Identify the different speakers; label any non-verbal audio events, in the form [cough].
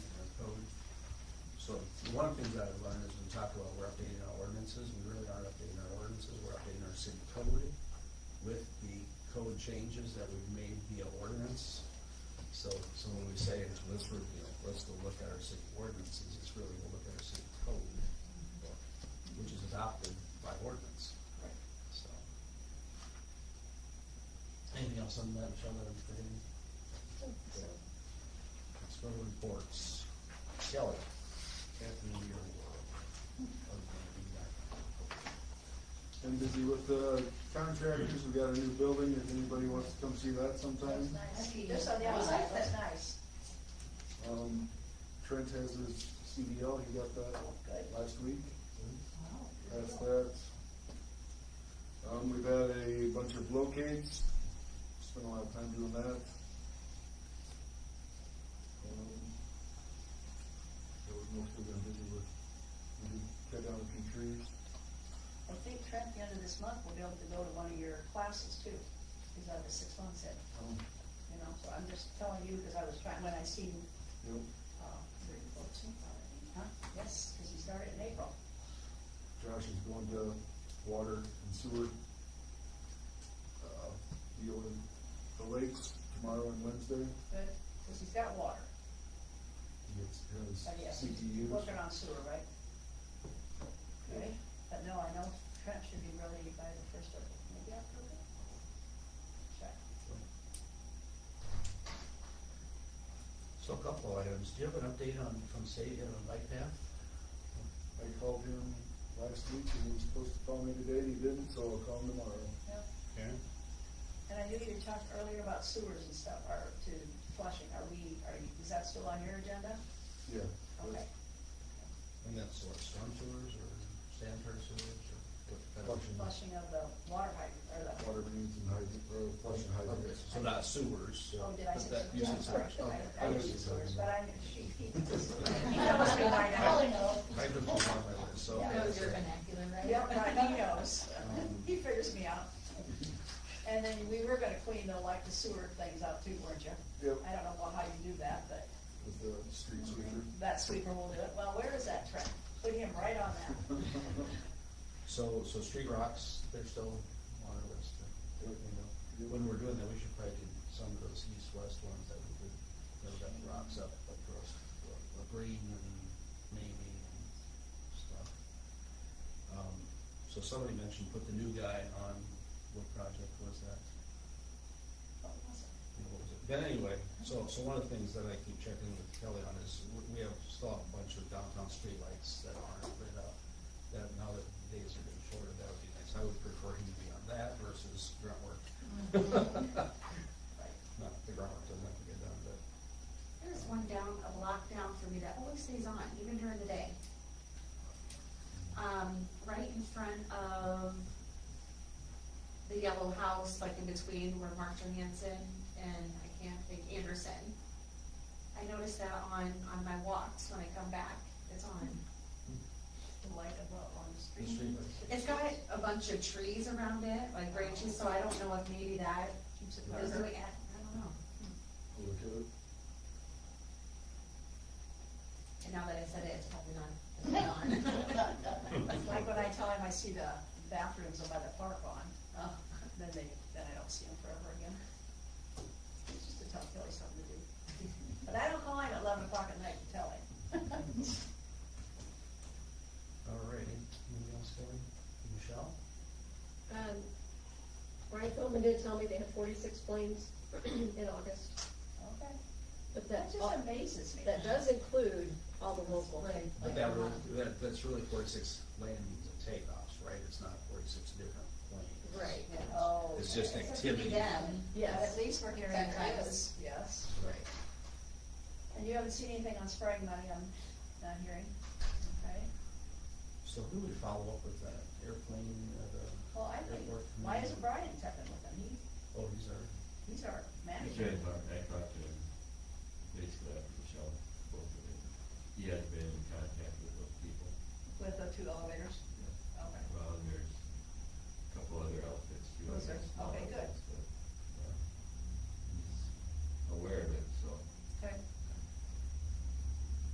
Speaker 1: one of the things that I've learned is we talk about we're updating our ordinances, we really aren't updating our ordinances, we're updating our city code with the code changes that we've made via ordinance. So, so when we say it's, let's review, let's go look at our city ordinances, it's really to look at our city code, which is adopted by ordinance,
Speaker 2: Right.
Speaker 1: so. Anything else on that, Michelle, that I'm forgetting? Let's go to reports. Shelley. Captain of your world.
Speaker 3: Been busy with the contractors, we got a new building, if anybody wants to come see that sometime.
Speaker 2: That's nice. Just on the outside, that's nice.
Speaker 3: Um, Trent has his CDL, he got
Speaker 2: Good.
Speaker 3: that last week, that's that. Um, we've had a bunch of blockades, spent a lot of time doing that. Um, So we've mostly been busy with, we did cut down a few trees.
Speaker 2: I think Trent, the end of this month, will be able to go to one of your classes too. He's on the six months in,
Speaker 3: Um,
Speaker 2: you know, so I'm just telling you because I was trying, when I seen,
Speaker 3: Yep,
Speaker 2: uh, huh? Yes, because he started in April.
Speaker 3: Josh is going to water and sewer, uh, deal with the lakes tomorrow and Wednesday.
Speaker 2: Good, because he's got water.
Speaker 3: He gets
Speaker 2: Oh, yes,
Speaker 3: his
Speaker 2: he's
Speaker 3: CTUs.
Speaker 2: working on sewer, right? Okay, but no, I know Trent should be ready by the first of, maybe October? Check.
Speaker 1: So a couple of items, do you have an update on, from state, you have a bike path?
Speaker 3: I called him last week and he was supposed to call me today, he didn't, so I'll call him tomorrow.
Speaker 2: Yep.
Speaker 1: Karen?
Speaker 2: And I knew you talked earlier about sewers and stuff, or to flushing, are we, are, you- is that still on your agenda?
Speaker 3: Yeah.
Speaker 2: Okay,
Speaker 1: And that's what, storm sewers or sanitary sewers or? what-
Speaker 3: Flushing.
Speaker 2: flushing of the water hydrant, or the,
Speaker 3: Water mains and hydrant, or flush and
Speaker 1: Okay,
Speaker 3: hydrants.
Speaker 1: So not sewers.
Speaker 2: oh, did I
Speaker 1: but
Speaker 2: say?
Speaker 1: that
Speaker 2: yeah,
Speaker 1: uses
Speaker 2: sorry,
Speaker 1: sewers.
Speaker 2: I, I
Speaker 1: [laughs]
Speaker 3: Okay.
Speaker 2: used sewers, but I, she, [laughs] he, he knows me by now.
Speaker 1: Hydrants was on my list, so.
Speaker 2: Yeah.
Speaker 4: That was your
Speaker 1: [laughs]
Speaker 4: vernacular, right?
Speaker 2: Yep, right,
Speaker 4: [laughs]
Speaker 2: he knows, [laughs]
Speaker 1: Um,
Speaker 2: he figures me out. And then we were gonna clean the, like, the sewer things out too, weren't you?
Speaker 3: Yep,
Speaker 2: I don't know well, how you do that, but
Speaker 3: with the street sweeper. [laughs]
Speaker 2: that sweeper will do it, well, where is that Trent? Put him right on that.
Speaker 3: [laughs]
Speaker 1: So, so street rocks, they're still on our list.
Speaker 3: Yep, you know.
Speaker 1: When we're doing that, we should probably do some of those east-west ones that we did, that got the rocks up across La Green and maybe and stuff. Um, so somebody mentioned put the new guy on, what project was that?
Speaker 2: What was it?
Speaker 1: What was it? But anyway, so, so one of the things that I keep checking with Kelly on is, we- we have still a bunch of downtown streetlights that aren't lit up. That now that the days are getting shorter, that would be nice. I would prefer him to be on that versus grunt work. [laughs]
Speaker 2: Right.
Speaker 1: Not, the grunt work doesn't have to get done, but
Speaker 4: There's one down, a block down for me that always stays on, even during the day. Um, right in front of the yellow house, like in between where Mark Johansson and I can't think Anderson. I notice that on, on my walks when I come back, it's on.
Speaker 2: The light above on the
Speaker 1: the
Speaker 2: street.
Speaker 1: streetlights.
Speaker 4: It's got a bunch of trees around it, like branches, so I don't know if maybe that
Speaker 2: Keeps it
Speaker 4: is
Speaker 2: darker.
Speaker 4: doing, it. I don't know.
Speaker 3: I'll Look at it.
Speaker 4: And now that I said it, it's probably not,
Speaker 2: [laughs]
Speaker 4: it's not on.
Speaker 2: It's
Speaker 4: [laughs]
Speaker 2: Like when I tell him I see the bathrooms by the park on, uh,
Speaker 4: Oh.
Speaker 2: then they, then I don't see them forever again. It's just to tell Kelly something to do. But I don't call him at eleven o'clock at night to tell him.
Speaker 1: Alrighty, anything else, Kelly? Michelle?
Speaker 5: Um, Ryan Philman did tell me they had forty-six planes [clears throat] in August,
Speaker 2: Okay,
Speaker 5: but
Speaker 2: that
Speaker 5: that,
Speaker 2: just amazes me.
Speaker 5: that does include all the local.
Speaker 4: Right.
Speaker 1: But that really, that, that's really forty-six landings and takeoffs, right? It's not forty-six different planes.
Speaker 5: Right,
Speaker 2: Yeah, Oh.
Speaker 1: It's just
Speaker 2: okay.
Speaker 1: activity.
Speaker 4: Could be them.
Speaker 2: But at
Speaker 5: yes.
Speaker 2: least we're hearing it
Speaker 4: That kind of-
Speaker 2: is, yes.
Speaker 1: Right.
Speaker 2: And you haven't seen anything on spraying money, I'm not hearing, okay?
Speaker 1: So who would follow up with that airplane, uh, the?
Speaker 2: Well, I think,
Speaker 1: airport
Speaker 2: why
Speaker 1: commander?
Speaker 2: isn't Brian stepping with him? He,
Speaker 1: Oh, he's our,
Speaker 2: he's our
Speaker 6: I
Speaker 2: manager.
Speaker 6: tried to talk, I talked to him, basically after the show, both of them. He has been in contact with those people.
Speaker 2: With the two elevators?